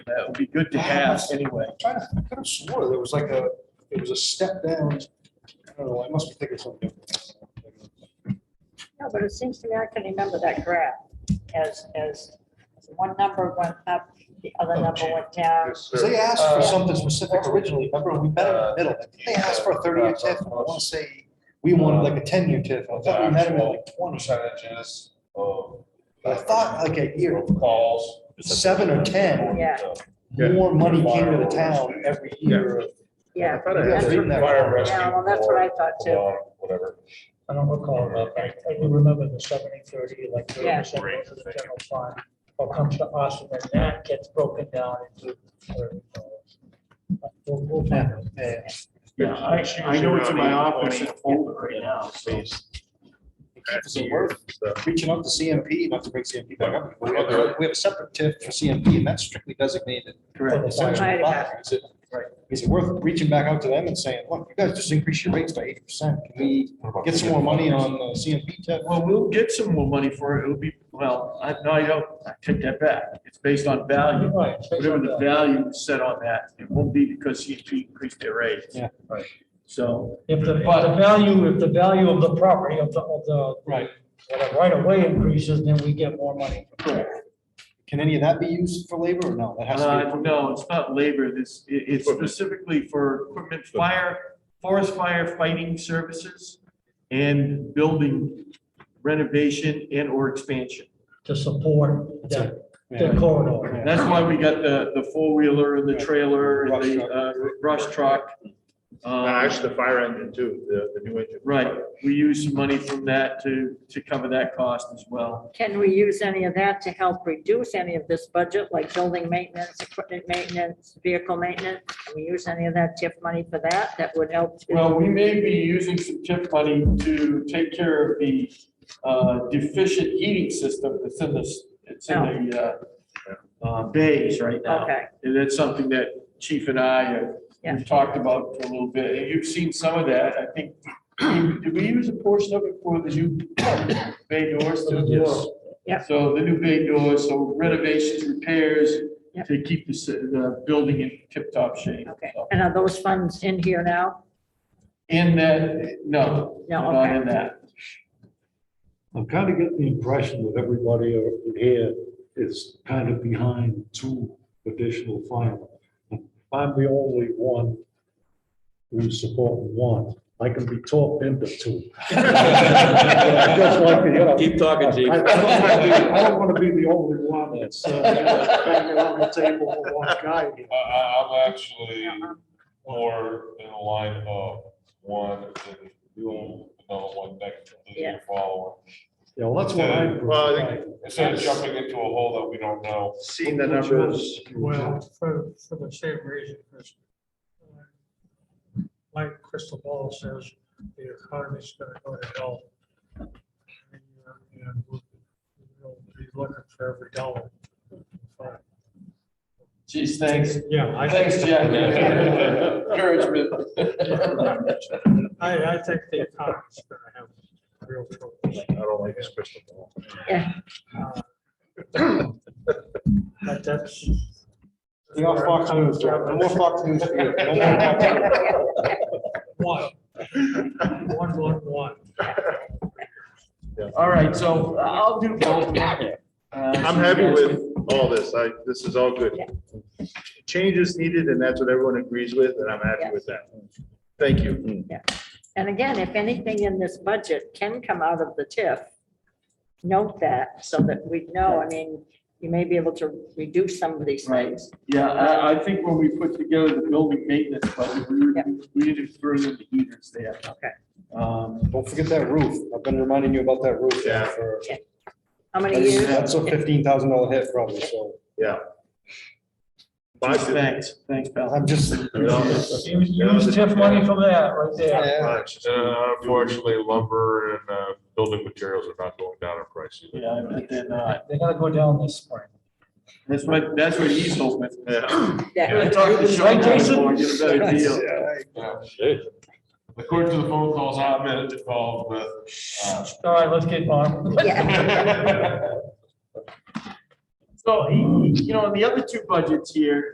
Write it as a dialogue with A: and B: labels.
A: That would be good to have anyway.
B: Trying to, I could have swore there was like a, it was a step down. I don't know, I must be thinking something. different.
C: No, but it seems to me I can remember that graph as, as one number went up, the other
B: Oh,
C: number
B: gee.
C: went down.
B: Because they asked for
C: Uh,
B: something specific originally, remember, we met in the middle, they asked for a thirty-year TIF, and I want to say, we wanted like a ten-year TIF, I thought we met him at like twenty.
D: percentages
A: Oh.
D: of.
B: But I thought like a year,
D: Calls.
B: seven or ten,
C: Yeah,
B: more money came to the town every year.
C: yeah.
B: thought I had written that.
D: Fire rescue.
C: Yeah, well, that's what I
D: or
C: thought too.
D: alarm, Whatever.
E: I don't recall about that. I do remember the seventy thirty, like thirty
C: Yeah.
E: percent goes to the general fund. What comes to us and then that gets broken down into. whatever it goes. But We'll, we'll find out.
B: Yeah.
A: Yeah, I, I know it's in my office folder right now. so
B: It's worth reaching out to CMP, not to bring CMP back up. We have a- we have a separate TIF for CMP, and that's strictly designated.
A: Correct.
B: Essentially,
C: Right.
B: fire. Is it- Is it worth reaching back out to them and saying, look, you guys just increase your rates by eighty percent, can we get some more money on the CMP TIF?
A: Well, we'll get some more money for it. It'll be, well, I, no, I don't, I take that back. It's based on value.
E: Right, it's based
A: Whatever
E: on
A: the
E: that.
A: value is set on that, it won't be because CMP increased their rate.
B: Yeah,
E: right.
A: So,
E: If the, if the value, if the value of the property of the, of the.
B: Right.
E: Whatever, right away increases, then we get more money.
B: Can any of that be used for labor or no? That has
A: uh,
B: to be.
A: no, it's not labor. This, it, it's specifically for equipment, fire, forest fire fighting services and building renovation and or expansion.
E: To support that,
B: Yeah.
E: that corridor.
A: That's why we got the, the four-wheeler and the trailer and the uh, brush truck. Um,
F: Actually, the fire engine too, the, the new engine.
A: Right, we used some money from that to, to cover that cost as well.
C: Can we use any of that to help reduce any of this budget, like building maintenance, equipment maintenance, vehicle maintenance? Can we use any of that TIF money for that? That would help. to-
A: Well, we may be using some TIF money to take care of the uh, deficient heating system that's in this, it's in the uh, uh, bays right now.
C: Oh. Okay,
A: And that's something that Chief and I, uh,
C: Yeah.
A: we've talked about for a little bit, and you've seen some of that, I think. Did we use a portion of it for the new bay doors?
E: Yes.
C: Yeah.
A: So the new bay doors, so renovations, repairs,
C: Yeah.
A: to keep the, ci- the building in tip-top shape.
C: okay.
A: So,
C: And are those funds in here now?
A: In that, no,
C: No,
A: not in
C: okay.
A: that.
G: I'm kind of getting the impression that everybody in here is kind of behind two additional firemen. I'm the only one who's supporting one. I can be talked into two. Just like, you know,
H: Keep talking, chief.
G: I I don't wanna be- I don't want to be the only one that's uh, banging on the table for one guy. here.
D: I, I, I'm actually
C: Uh-uh.
D: more in the line of one and you, another one next to
C: Yeah.
D: the following.
G: Yeah, well, that's what I.
F: Well, I think-
D: Instead of jumping into a hole that we don't know.
F: Seeing the numbers,
E: Well, for, for the same reason, Chris. Like Crystal Ball says, the economy's gonna go to hell. uh, And we'll we'll be looking for every dollar.
A: Geez, thanks.
E: Yeah, I
A: Thanks,
E: think,
A: Jack. Encouragement.
E: I, I think the economy's gonna have real trouble.
F: I don't like this crystal ball.
E: Uh, But that's.
B: You know, Fox News, Jack. No more Fox News. for you. No more Fox News.
E: One. One, one, one.
A: All right, so I'll do both. Uh,
F: I'm happy with all this, I, this is all good.
C: Yeah.
F: Change is needed and that's what everyone agrees with and I'm happy with that. Thank
A: Mm.
F: you.
C: And again, if anything in this budget can come out of the TIF, note that so that we know, I mean, you may be able to reduce some of these
A: Right.
C: things.
A: Yeah, I, I think when we put together the building maintenance budget, we,
C: Yeah.
A: we need to throw in the heaters there.
C: Okay.
A: Um,
B: Don't forget that roof, I've been reminding you about that roof.
F: Yeah.
B: for-
C: How many years?
B: That's a fifteen thousand dollar hit probably, so
F: Five to-
A: thanks, thanks, pal.
B: I'm just.
F: Use-
E: Use TIF money for that right there.
B: Yeah.
D: Uh, Unfortunately, lumber and, uh, building materials are not going down in price either.
A: Yeah, I bet they're not.
E: They gotta go down this spring.
A: That's what, that's what he's hoping.
F: Yeah.
A: I
C: Yeah.
A: talked to Sean
E: Right, Jason?
A: before, get a better deal.
D: According to the phone calls I've been involved with, uh,
E: All right, let's get on.
C: Yeah.
A: So, he- you know, the other two budgets here,